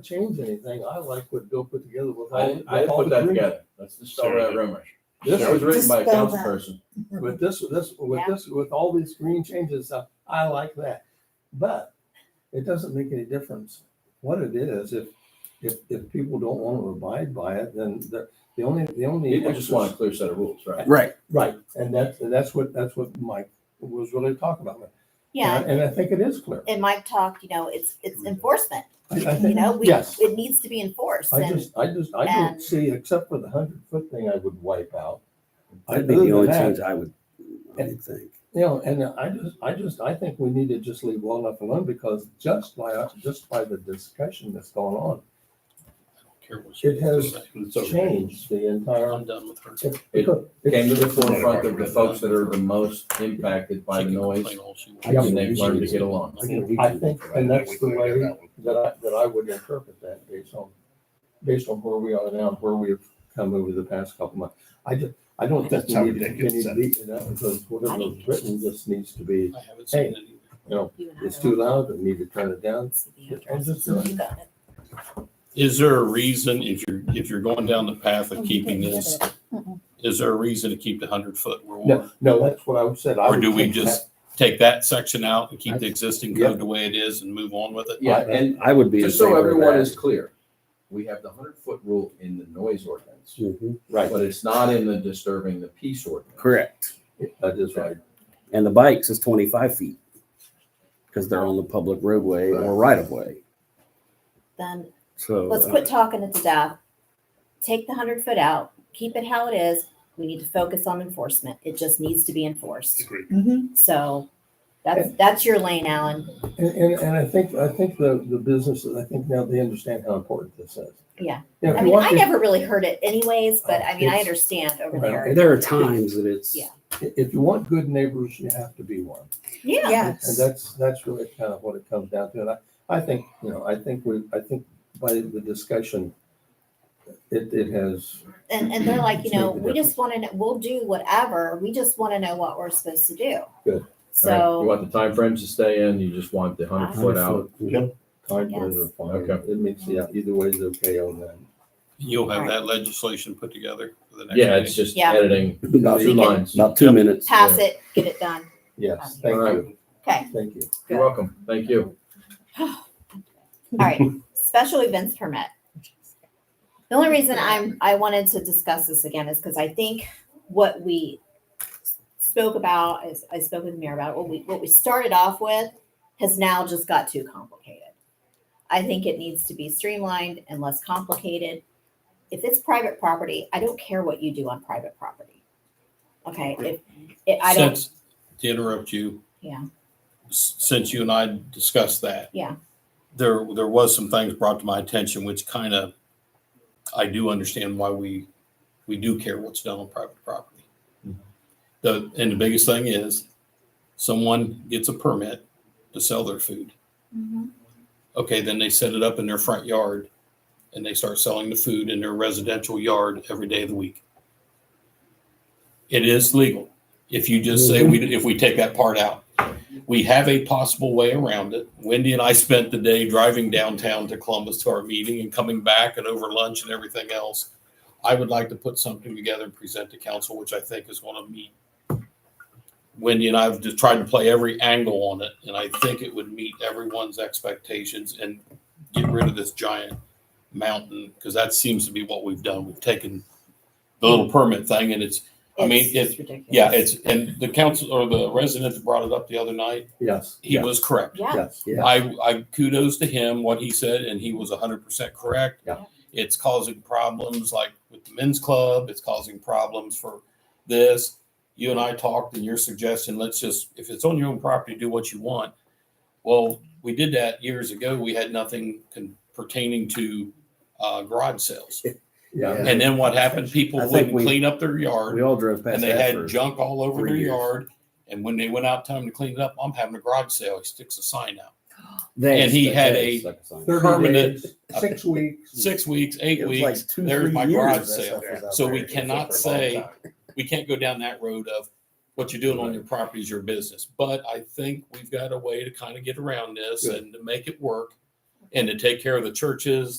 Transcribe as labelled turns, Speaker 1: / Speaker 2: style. Speaker 1: change anything. I like what Bill put together with.
Speaker 2: I,
Speaker 1: all-
Speaker 2: I
Speaker 1: with all
Speaker 2: put
Speaker 1: the
Speaker 2: that
Speaker 1: green.
Speaker 2: together. Let's dispel that rumor.
Speaker 1: This
Speaker 2: That was
Speaker 1: was,
Speaker 2: written by a
Speaker 3: Dispel that.
Speaker 2: councilperson.
Speaker 1: with this, this, with
Speaker 4: Yeah.
Speaker 1: this, with all these green changes, uh, I like that. But it doesn't make any difference what it is. If, if, if people don't want to abide by it, then the, the only, the only.
Speaker 2: People just want a clear set of rules, right?
Speaker 5: Right.
Speaker 1: Right, and that's, and that's what, that's what Mike was really talking about.
Speaker 4: Yeah,
Speaker 1: And I think it is clear.
Speaker 4: and Mike talked, you know, it's, it's enforcement,
Speaker 1: I- Mm-hmm. I
Speaker 4: you
Speaker 1: think-
Speaker 4: know, we,
Speaker 1: Yes.
Speaker 4: it needs to be enforced
Speaker 1: I
Speaker 4: and,
Speaker 1: just, I just, I don't
Speaker 4: and-
Speaker 1: see, except for the hundred foot thing I would wipe out.
Speaker 5: That'd
Speaker 1: Other
Speaker 5: be the
Speaker 1: than
Speaker 5: only
Speaker 1: that,
Speaker 5: change I would, I would think.
Speaker 1: You know, and I just, I just, I think we need to just leave well enough alone because just by, just by the discussion that's going on, It has
Speaker 6: It's
Speaker 1: it's
Speaker 6: okay.
Speaker 1: changed the entire.
Speaker 6: I'm done with her.
Speaker 1: because-
Speaker 2: Came to the forefront of the folks that are the most impacted by
Speaker 6: She
Speaker 2: the
Speaker 6: can
Speaker 2: noise
Speaker 6: complain all she wants.
Speaker 1: Yeah.
Speaker 2: and they've learned to get along.
Speaker 1: I think, and that's the way that I, that I would interpret that based on, based on where we are now, and where we've come over the past couple months. I just, I don't think
Speaker 6: That's
Speaker 1: we
Speaker 6: how
Speaker 1: need to continue
Speaker 6: ridiculous
Speaker 1: to
Speaker 6: that
Speaker 1: beat it up because whatever is written just needs to be,
Speaker 6: I haven't seen
Speaker 1: Hey.
Speaker 6: it either.
Speaker 1: you know,
Speaker 4: you and I
Speaker 1: it's
Speaker 4: are
Speaker 1: too
Speaker 4: on
Speaker 1: loud, we need to turn it down.
Speaker 4: the
Speaker 1: I was
Speaker 4: address,
Speaker 1: just
Speaker 4: so
Speaker 1: doing-
Speaker 4: you got it.
Speaker 6: Is there a reason, if you're, if you're going down the path of keeping this, is there a reason to keep the hundred foot rule?
Speaker 1: No, no, that's what I said. I
Speaker 6: Or do
Speaker 1: would
Speaker 6: we
Speaker 1: think
Speaker 6: just take that section out and keep the existing
Speaker 1: Yeah.
Speaker 6: code the way it is and move on with it?
Speaker 2: Yeah, and
Speaker 5: I would be. in
Speaker 2: just so
Speaker 5: favor of
Speaker 2: everyone
Speaker 5: that.
Speaker 2: is clear, we have the hundred foot rule in the noise ordinance,
Speaker 5: Mhm.
Speaker 1: Right,
Speaker 2: but it's not in the disturbing the peace ordinance.
Speaker 5: Correct.
Speaker 1: that is right.
Speaker 5: And the bikes is twenty-five feet. Because they're on the public roadway or right of way.
Speaker 4: Then
Speaker 5: So.
Speaker 4: let's
Speaker 5: uh,
Speaker 4: quit talking it to death. Take the hundred foot out, keep it how it is. We need to focus on enforcement. It just needs to be enforced. So that's, that's your lane, Alan.
Speaker 1: And, and, and I think, I think the, the businesses, I think now they understand how important this is.
Speaker 4: Yeah.
Speaker 1: You know, if
Speaker 4: I
Speaker 1: you
Speaker 4: mean,
Speaker 1: want
Speaker 4: I
Speaker 1: to-
Speaker 4: never really heard it anyways, but I mean, I
Speaker 1: It's-
Speaker 4: understand over
Speaker 1: Right.
Speaker 4: there.
Speaker 5: There are times that it's.
Speaker 4: Yeah.
Speaker 1: If you want good neighbors, you have to be one.
Speaker 4: Yeah,
Speaker 1: And
Speaker 3: Yes.
Speaker 1: that's, that's really kind of what it comes down to. And I, I think, you know, I think we, I think by the discussion, it, it has,
Speaker 4: and, and they're like, you
Speaker 1: It's made
Speaker 4: know,
Speaker 1: the
Speaker 4: we just want to, know. we'll do whatever. We just want to know what we're supposed to do.
Speaker 1: Good.
Speaker 2: All right, You
Speaker 4: So, Ah.
Speaker 2: want the timeframes to stay in, you just want the hundred foot out.
Speaker 1: time frames are fine.
Speaker 2: Okay.
Speaker 1: It makes, yeah, either way is okay on that.
Speaker 6: You'll have
Speaker 4: Right.
Speaker 6: that legislation put together for the next
Speaker 2: Yeah, it's
Speaker 6: meeting.
Speaker 2: just
Speaker 4: Yeah.
Speaker 2: editing
Speaker 1: About-
Speaker 2: two lines.
Speaker 5: About two minutes.
Speaker 4: pass it, get it done.
Speaker 1: Yes, thank
Speaker 2: All right.
Speaker 1: you,
Speaker 4: Okay.
Speaker 1: thank you.
Speaker 2: You're welcome. Thank you.
Speaker 4: All right, special events permit. The only reason I'm, I wanted to discuss this again is because I think what we spoke about, is I spoke with the mayor about, what we, what we started off with has now just got too complicated. I think it needs to be streamlined and less complicated. If it's private property, I don't care what you do on private property. Okay, if, if, I don't,
Speaker 6: Since, to interrupt you.
Speaker 4: Yeah.
Speaker 6: s- Since you and I discussed that.
Speaker 4: Yeah.
Speaker 6: There, there was some things brought to my attention, which kind of, I do understand why we, we do care what's done on private property. The, and the biggest thing is, someone gets a permit to sell their food. Okay, then they set it up in their front yard and they start selling the food in their residential yard every day of the week. It is legal. If you just say we, if we take that part out, we have a possible way around it. Wendy and I spent the day driving downtown to Columbus to our meeting and coming back and over lunch and everything else. I would like to put something together and present to council, which I think is going to meet. Wendy and I have just tried to play every angle on it, and I think it would meet everyone's expectations and get rid of this giant mountain, because that seems to be what we've done. We've taken the little permit thing and it's I mean,
Speaker 4: it's just ridiculous.
Speaker 6: yeah, it's, and the council or the resident that brought it up the other night,
Speaker 1: Yes,
Speaker 6: he
Speaker 1: yeah,
Speaker 6: was correct.
Speaker 4: Yeah.
Speaker 1: yes.
Speaker 5: Yeah.
Speaker 6: I, I kudos to him, what he said, and he was hundred percent correct.
Speaker 1: Yeah.
Speaker 6: It's causing problems like with the men's club, it's causing problems for this. You and I talked and your suggestion, let's just, if it's on your own property, do what you want. Well, we did that years ago. We had nothing con- pertaining to, uh, garage sales.
Speaker 1: Yeah,
Speaker 6: And then what happened? People
Speaker 5: I think
Speaker 6: wouldn't
Speaker 5: we-
Speaker 6: clean up their yard.
Speaker 5: We all drove past
Speaker 6: And they
Speaker 5: that
Speaker 6: had
Speaker 5: for.
Speaker 6: junk all over
Speaker 5: three
Speaker 6: their
Speaker 5: years.
Speaker 6: yard. And when they went out time to clean it up, I'm having a garage sale. He sticks a sign out.
Speaker 5: They-
Speaker 6: and he
Speaker 5: they
Speaker 6: had a
Speaker 5: stuck sign.
Speaker 1: thirty
Speaker 6: permanent-
Speaker 1: days, six weeks.
Speaker 6: Six weeks, eight
Speaker 5: It was like
Speaker 6: weeks,
Speaker 5: two,
Speaker 6: there's
Speaker 5: three
Speaker 6: my
Speaker 5: years
Speaker 6: garage
Speaker 5: that
Speaker 6: sale.
Speaker 5: stuff was out
Speaker 6: So we
Speaker 5: there.
Speaker 6: cannot say, we can't go down that road of what you're doing on your property is your business. But I think we've got a way to kind of get around this
Speaker 1: Good.
Speaker 6: and to make it work. and to take care of the churches,